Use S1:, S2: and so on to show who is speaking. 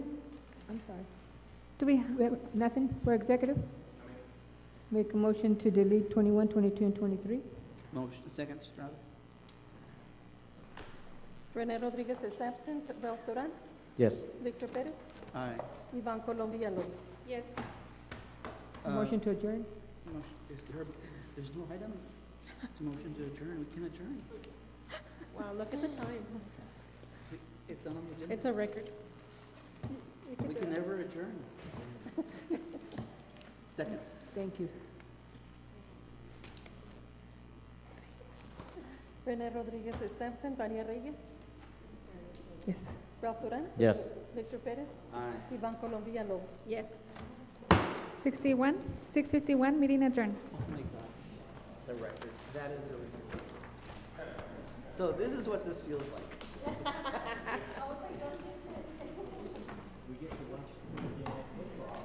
S1: sorry. Do we, we have nothing for executive? Make a motion to delete 21, 22, and 23?
S2: Motion, second, Estrada?
S3: René Rodríguez is absent. Ralph Duran,
S4: Yes.
S3: Victor Pérez,
S2: Aye.
S3: Iván Colón Villalobos.
S5: Yes.
S1: A
S2: Uh,
S1: motion to adjourn?
S2: motion- Is there, there's no item? It's a motion to adjourn, we can adjourn.
S3: Wow, look at the time.
S2: It's on the agenda.
S3: It's a record.
S2: We can never adjourn. Second.
S1: Thank you.
S3: René Rodríguez is absent. Vania Reyes,
S1: Yes.
S3: Ralph Duran,
S4: Yes.
S3: Victor Pérez,
S2: Aye.
S3: Iván Colón Villalobos.
S5: Yes.
S1: 61, 651, meeting adjourned.
S2: Oh my God. The record, that is a record. So this is what this feels like.